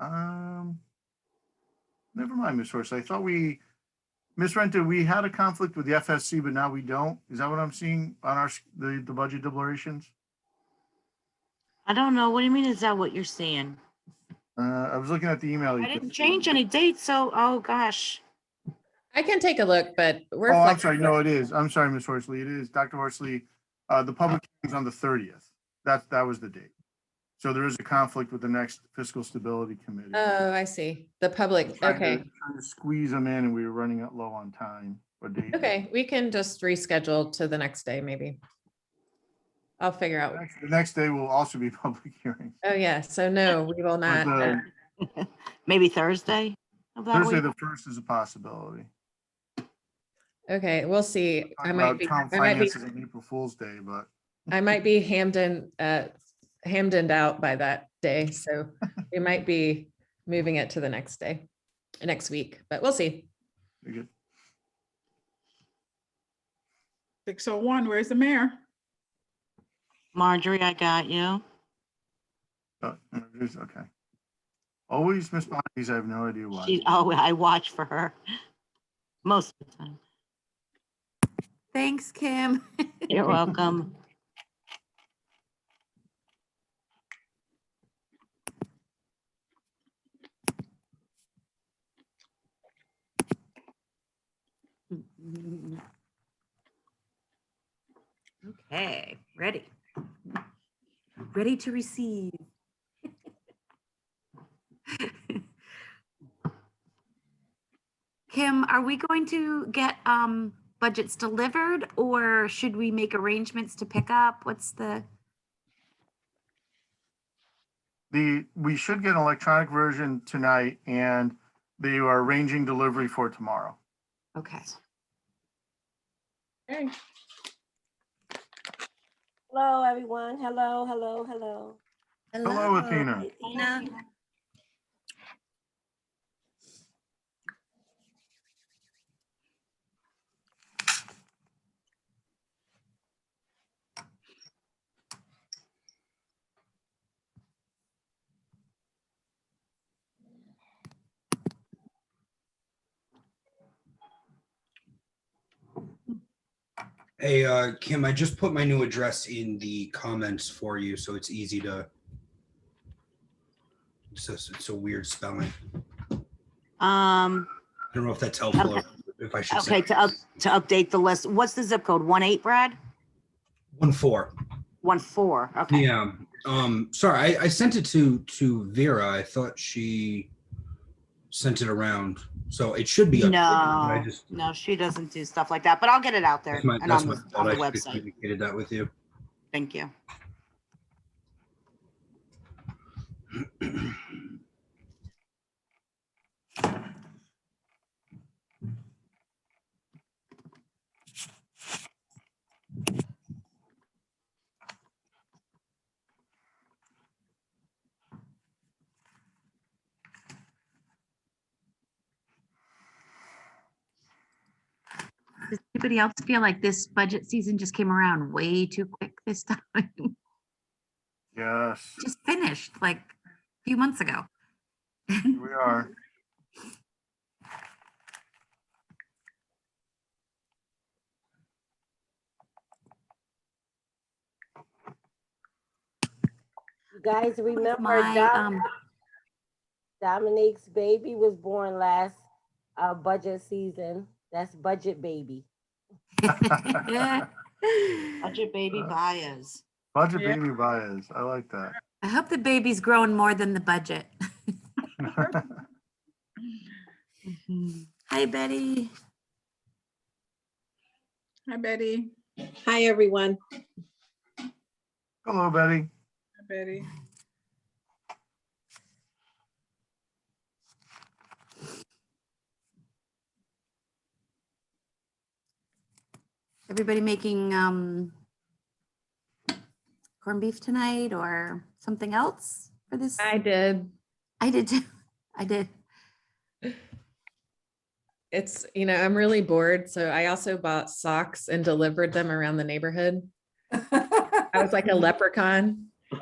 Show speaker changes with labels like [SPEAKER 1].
[SPEAKER 1] Um, never mind, Ms. Horst. I thought we, Ms. Renta, we had a conflict with the FSC, but now we don't. Is that what I'm seeing on our, s- the, the budget deliberations?
[SPEAKER 2] I don't know. What do you mean? Is that what you're seeing?
[SPEAKER 1] Uh, I was looking at the email. you
[SPEAKER 2] I
[SPEAKER 1] sent.
[SPEAKER 2] didn't change any dates, so, oh, gosh.
[SPEAKER 3] I can take a look, but we're.
[SPEAKER 1] Oh, I'm sorry.
[SPEAKER 3] flexible.
[SPEAKER 1] No, it is. I'm sorry, Ms. Horsley. It is. Dr. Horsley, uh, the public hearing's on the thirtieth. That, that was the date. So there is a conflict with the next fiscal stability committee.
[SPEAKER 3] Oh, I see. The public,
[SPEAKER 1] Trying to-
[SPEAKER 3] okay,
[SPEAKER 1] trying to Squeeze them in and we were running out low on time. or date.
[SPEAKER 3] okay, we can just reschedule to the next day, maybe. I'll figure out.
[SPEAKER 1] Actually, The next day will also be public hearing.
[SPEAKER 3] Oh, yeah, so no, we will
[SPEAKER 1] But
[SPEAKER 3] not. uh,
[SPEAKER 1] the-
[SPEAKER 2] Maybe Thursday? of that
[SPEAKER 1] Thursday,
[SPEAKER 2] week?
[SPEAKER 1] the first is a possibility.
[SPEAKER 3] uh, Okay, we'll see. I
[SPEAKER 1] Talk
[SPEAKER 3] might
[SPEAKER 1] about
[SPEAKER 3] be,
[SPEAKER 1] Town
[SPEAKER 3] I might be,
[SPEAKER 1] finances on April Fool's Day, but
[SPEAKER 3] I might be Hamden, uh, Hamdened out by that day, so we might be moving it to the next day, next week, but we'll see.
[SPEAKER 1] you're good.
[SPEAKER 4] 601, where's the mayor?
[SPEAKER 2] Marjorie, I got you.
[SPEAKER 1] Uh, it's okay. Always Miss Bondi's, I have no idea why.
[SPEAKER 2] She, oh, I watch for her most of the time.
[SPEAKER 5] Thanks, Kim.
[SPEAKER 2] You're welcome.
[SPEAKER 5] Okay, ready. Ready to receive. Kim, are we going to get um budgets delivered or should we make arrangements to pick up? What's the,
[SPEAKER 1] The, we should get an electronic version tonight and they are arranging delivery for tomorrow.
[SPEAKER 5] okay.
[SPEAKER 4] Hey,
[SPEAKER 6] Hello, everyone. Hello, hello, hello.
[SPEAKER 1] Hello, Athena.
[SPEAKER 6] Athena.
[SPEAKER 7] Hey, uh, Kim, I just put my new address in the comments for you, so it's easy to. It's just, it's a weird spelling.
[SPEAKER 2] Um,
[SPEAKER 7] I don't know if that's helpful or if I should
[SPEAKER 2] okay,
[SPEAKER 7] say.
[SPEAKER 2] to up, to update the list, what's the zip code? One eight, Brad?
[SPEAKER 7] One four.
[SPEAKER 2] One four, okay.
[SPEAKER 7] Yeah. Um, sorry, I, I sent it to, to Vera. I thought she sent it around, so it should be. up there, but I
[SPEAKER 2] No,
[SPEAKER 7] just-
[SPEAKER 2] No, she doesn't do stuff like that, but I'll get it out there
[SPEAKER 7] That's my,
[SPEAKER 2] and
[SPEAKER 7] that's
[SPEAKER 2] on
[SPEAKER 7] my
[SPEAKER 2] the, on
[SPEAKER 7] fault.
[SPEAKER 2] the
[SPEAKER 7] I should have
[SPEAKER 2] website.
[SPEAKER 7] communicated that with you.
[SPEAKER 2] Thank you.
[SPEAKER 5] Does anybody else feel like this budget season just came around way too quick this time?
[SPEAKER 1] Yes,
[SPEAKER 5] Just finished like a few months ago.
[SPEAKER 1] here we are.
[SPEAKER 6] You guys remember
[SPEAKER 5] My,
[SPEAKER 6] Dom-
[SPEAKER 5] um,
[SPEAKER 6] Dominique's baby was born last uh, budget season. That's budget baby.
[SPEAKER 2] Budget baby
[SPEAKER 1] Uh,
[SPEAKER 2] bias.
[SPEAKER 1] Budget
[SPEAKER 4] Yeah.
[SPEAKER 1] baby bias. I like that.
[SPEAKER 5] I hope the baby's growing more than the budget. Hi, Betty.
[SPEAKER 4] hi Betty,
[SPEAKER 8] Hi, everyone.
[SPEAKER 1] Hello, Betty.
[SPEAKER 4] hi Betty.
[SPEAKER 5] Everybody making um corned beef tonight or something else for this?
[SPEAKER 3] I did.
[SPEAKER 5] I did, too. I did.
[SPEAKER 3] It's, you know, I'm really bored, so I also bought socks and delivered them around the neighborhood. I was like a leprechaun.